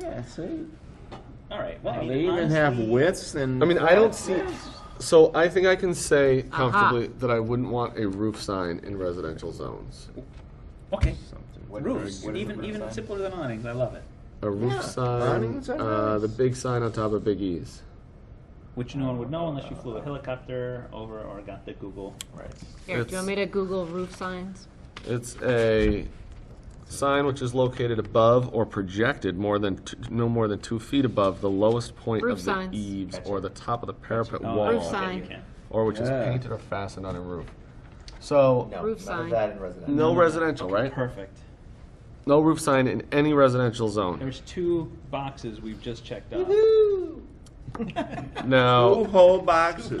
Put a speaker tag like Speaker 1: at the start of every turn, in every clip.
Speaker 1: Yeah, see?
Speaker 2: All right. Well, I mean,
Speaker 1: They even have
Speaker 2: honestly,
Speaker 1: widths and.
Speaker 3: I mean, I don't see, so I think I can say comfortably that I wouldn't want a roof sign in residential zones.
Speaker 2: Okay.
Speaker 1: Something.
Speaker 4: What-
Speaker 2: Roofs,
Speaker 4: what is a
Speaker 2: even
Speaker 4: roof
Speaker 2: even
Speaker 4: sign?
Speaker 2: simpler than awnings. I love it.
Speaker 3: A
Speaker 1: Yeah,
Speaker 3: roof sign,
Speaker 1: awnings are
Speaker 3: uh,
Speaker 1: nice.
Speaker 3: the big sign on top of Big E's.
Speaker 2: Which no one would know unless you flew a helicopter over or got the Google.
Speaker 4: Right.
Speaker 5: Here, do you
Speaker 3: It's-
Speaker 5: want me to Google roof signs?
Speaker 3: It's a sign which is located above or projected more than, t- no more than two feet above the lowest point
Speaker 5: Roof
Speaker 3: of the
Speaker 5: signs.
Speaker 3: eaves
Speaker 4: Gotcha.
Speaker 3: or the top of the parapet
Speaker 2: Oh,
Speaker 3: wall.
Speaker 5: Roof
Speaker 2: okay,
Speaker 5: sign.
Speaker 2: you can.
Speaker 3: Or which is
Speaker 1: Yeah.
Speaker 3: painted or fastened on a roof. So,
Speaker 4: No,
Speaker 5: Roof
Speaker 4: none
Speaker 5: sign.
Speaker 4: of that in residential.
Speaker 3: no residential, right?
Speaker 2: Perfect.
Speaker 3: No roof sign in any residential zone.
Speaker 2: There's two boxes we've just checked off.
Speaker 1: Two
Speaker 3: Now,
Speaker 1: whole boxes,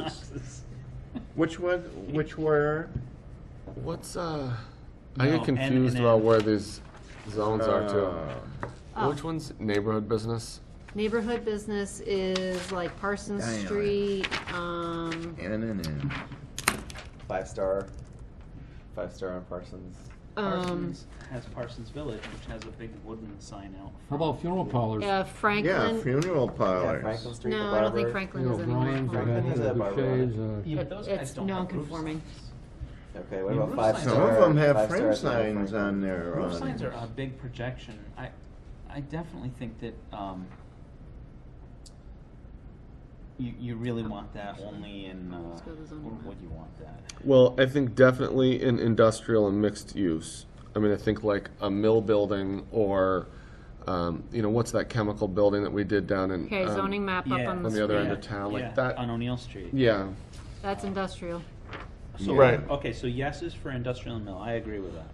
Speaker 2: Boxes.
Speaker 1: which was, which were,
Speaker 3: what's, uh, I
Speaker 2: No,
Speaker 3: get
Speaker 2: N and
Speaker 3: confused
Speaker 2: N.
Speaker 3: about where these zones are
Speaker 1: Uh,
Speaker 3: too. Which one's neighborhood business?
Speaker 5: Neighborhood business is like Parsons
Speaker 1: Diane.
Speaker 5: Street, um,
Speaker 1: in and in.
Speaker 4: Five star. Five star on Parsons.
Speaker 5: um,
Speaker 2: Parsons has Parsons Village, which has a big wooden sign out.
Speaker 6: How about funeral parlors?
Speaker 5: yeah,
Speaker 1: Yeah,
Speaker 5: Franklin.
Speaker 1: funeral
Speaker 4: Yeah,
Speaker 1: parlors.
Speaker 4: Franklin Street.
Speaker 5: No,
Speaker 4: the
Speaker 5: I don't
Speaker 4: library.
Speaker 5: think
Speaker 6: You
Speaker 5: Franklin
Speaker 6: know,
Speaker 5: is
Speaker 6: Brian's,
Speaker 5: anywhere.
Speaker 4: Franklin
Speaker 6: O'Hannies,
Speaker 4: has that
Speaker 6: Buffets,
Speaker 4: barbaric.
Speaker 6: uh,
Speaker 2: Yeah, but those guys
Speaker 5: It's
Speaker 2: don't have roof
Speaker 5: non-conforming.
Speaker 2: signs.
Speaker 4: Okay, what
Speaker 2: Yeah,
Speaker 4: about
Speaker 2: roof
Speaker 4: five
Speaker 2: signs
Speaker 4: star?
Speaker 2: are-
Speaker 1: Some of them have
Speaker 4: five
Speaker 1: frame
Speaker 4: stars on
Speaker 1: signs
Speaker 4: Franklin?
Speaker 1: on their. uh,
Speaker 2: Roof
Speaker 1: awnings.
Speaker 2: signs are a big projection. I, I definitely think that um, you you really want that only in uh,
Speaker 5: Let's go to the zoning
Speaker 2: where
Speaker 5: map.
Speaker 2: would you want that?
Speaker 3: Well, I think definitely in industrial and mixed use. I mean, I think like a mill building or, um, you know, what's that chemical building that we did down in?
Speaker 5: Okay,
Speaker 3: um,
Speaker 5: zoning map up
Speaker 2: yeah.
Speaker 5: on
Speaker 3: On
Speaker 5: the,
Speaker 3: the other end
Speaker 5: screen.
Speaker 3: of town,
Speaker 2: Yeah,
Speaker 3: like that.
Speaker 2: on O'Neill Street.
Speaker 3: Yeah,
Speaker 5: that's industrial.
Speaker 2: So,
Speaker 3: Right.
Speaker 2: Okay, so yes is for industrial and mill. I agree with that.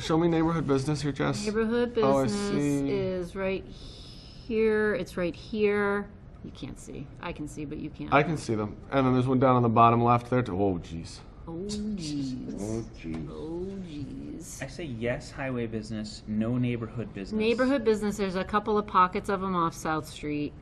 Speaker 3: show me neighborhood business here, Jess.
Speaker 5: Neighborhood
Speaker 3: Oh, I
Speaker 5: business
Speaker 3: see.
Speaker 5: is right here, it's right here. You can't see, I can see, but you can't.
Speaker 3: I can see them. And then there's one down on the bottom left there too. Oh, jeez.
Speaker 5: Oh jeez,
Speaker 1: Oh, geez.
Speaker 5: oh jeez.
Speaker 2: I say yes highway business, no neighborhood business.
Speaker 5: Neighborhood business, there's a couple of pockets of them off South Street.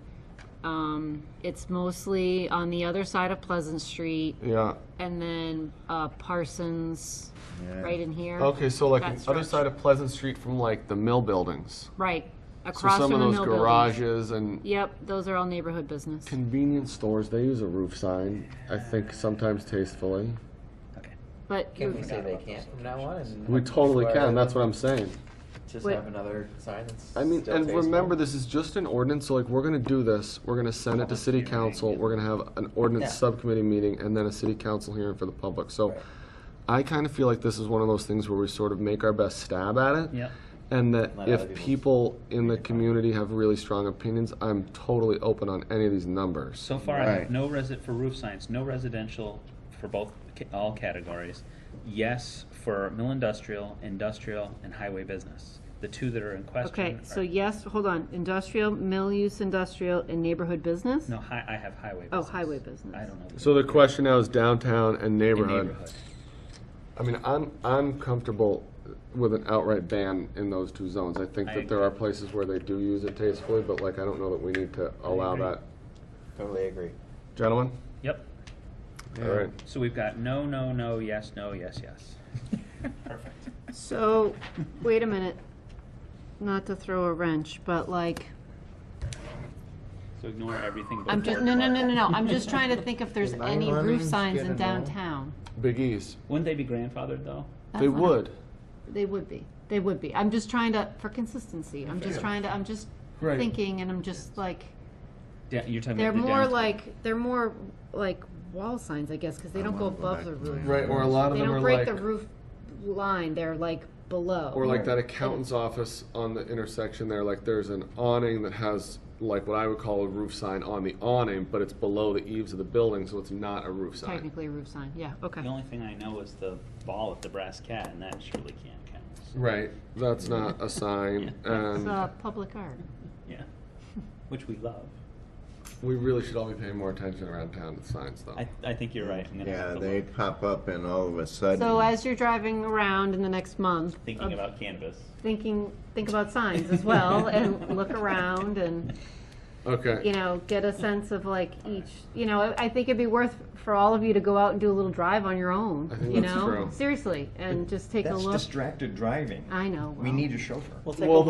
Speaker 5: Um, it's mostly on the other side of Pleasant Street
Speaker 3: Yeah.
Speaker 5: and then, uh, Parsons,
Speaker 1: Yeah.
Speaker 5: right in here.
Speaker 3: Okay, so like
Speaker 5: That
Speaker 3: the other
Speaker 5: stretch.
Speaker 3: side of Pleasant Street from like the mill buildings.
Speaker 5: Right,
Speaker 3: So
Speaker 5: across
Speaker 3: some
Speaker 5: from the
Speaker 3: of
Speaker 5: mill
Speaker 3: those
Speaker 5: building.
Speaker 3: garages and
Speaker 5: Yep, those are all neighborhood business.
Speaker 3: convenience stores, they use a roof sign, I think sometimes tastefully.
Speaker 2: Okay.
Speaker 5: But
Speaker 4: Can
Speaker 5: you-
Speaker 4: we say they can't from now on? and-
Speaker 3: We totally can, that's what I'm saying.
Speaker 4: Just
Speaker 5: Wait.
Speaker 4: have another sign that's.
Speaker 3: I mean,
Speaker 4: still
Speaker 3: and
Speaker 4: tasteful.
Speaker 3: remember, this is just an ordinance, so like, we're gonna do this, we're gonna send it to city council, we're gonna have an ordinance subcommittee meeting, and then a city council hearing for the public, so
Speaker 4: Right.
Speaker 3: I kinda feel like this is one of those things where we sort of make our best stab at it.
Speaker 2: Yep.
Speaker 3: And that
Speaker 4: Let other
Speaker 3: if
Speaker 4: people-
Speaker 3: people in the community have really strong opinions, I'm totally open on any of these numbers.
Speaker 2: So far, I
Speaker 1: Right.
Speaker 2: have no resi- for roof signs, no residential for both ca- all categories. Yes for mill industrial, industrial, and highway business. The two that are in question.
Speaker 5: Okay, so
Speaker 2: are-
Speaker 5: yes, hold on, industrial, mill use industrial, and neighborhood business?
Speaker 2: no, hi- I have highway.
Speaker 5: Oh,
Speaker 2: business.
Speaker 5: highway business.
Speaker 2: I don't know.
Speaker 3: So the question now is downtown and
Speaker 2: In
Speaker 3: neighborhood.
Speaker 2: neighborhood.
Speaker 3: I mean, I'm, I'm comfortable with an outright ban in those two zones. I think
Speaker 2: I
Speaker 3: that there are places where they do use it tastefully, but like, I don't know that we need to allow
Speaker 2: agree.
Speaker 3: that.
Speaker 4: Totally agree.
Speaker 3: Gentlemen?
Speaker 2: Yep.
Speaker 3: All right.
Speaker 2: So we've got no, no, no, yes, no, yes, yes. Perfect.
Speaker 5: So, wait a minute, not to throw a wrench, but like,
Speaker 2: So ignore everything. but
Speaker 5: I'm just, no, no, no, no, no, I'm just trying to think if there's any roof signs in downtown.
Speaker 3: Big E's.
Speaker 2: Wouldn't they be grandfathered though?
Speaker 3: They
Speaker 5: That's what I-
Speaker 3: would.
Speaker 5: They would be, they would be, I'm just trying to, for consistency, I'm just trying to, I'm just
Speaker 3: Right.
Speaker 5: thinking, and I'm just like,
Speaker 2: Yeah, you're talking
Speaker 5: they're
Speaker 2: about the
Speaker 5: more
Speaker 2: downtown.
Speaker 5: like, they're more like wall signs, I guess, because they don't go above the roof.
Speaker 3: Right, or a lot of
Speaker 5: They
Speaker 3: them are
Speaker 5: don't
Speaker 3: like,
Speaker 5: break the roof line, they're like below.
Speaker 3: or like that accountant's office on the intersection there, like there's an awning that has like what I would call a roof sign on the awning, but it's below the eaves of the building, so it's not a roof sign.
Speaker 5: Technically a roof sign, yeah, okay.
Speaker 2: The only thing I know is the ball at the brass cat, and that surely can't count.
Speaker 3: Right, that's not a sign,
Speaker 5: It's
Speaker 2: Um,
Speaker 3: and
Speaker 5: uh, public art.
Speaker 2: Yeah. Which we love.
Speaker 3: we really should all be paying more attention around town to signs though.
Speaker 2: I, I think you're right. I'm gonna
Speaker 1: Yeah,
Speaker 2: have to
Speaker 1: they
Speaker 2: look.
Speaker 1: pop up and all of a sudden.
Speaker 5: So as you're driving around in the next month,
Speaker 2: thinking about cannabis.
Speaker 5: thinking, think about signs as well, and look around, and, you
Speaker 3: Okay,
Speaker 5: know, get a sense of like each, you know, I- I think it'd be worth for all of you to go out and do a little drive on your own,
Speaker 3: I think
Speaker 5: you
Speaker 3: that's
Speaker 5: know?
Speaker 3: true.
Speaker 5: Seriously, and just take a look.
Speaker 7: distracted driving.
Speaker 5: I know. well.
Speaker 7: a chauffeur.
Speaker 2: We'll take
Speaker 3: Well,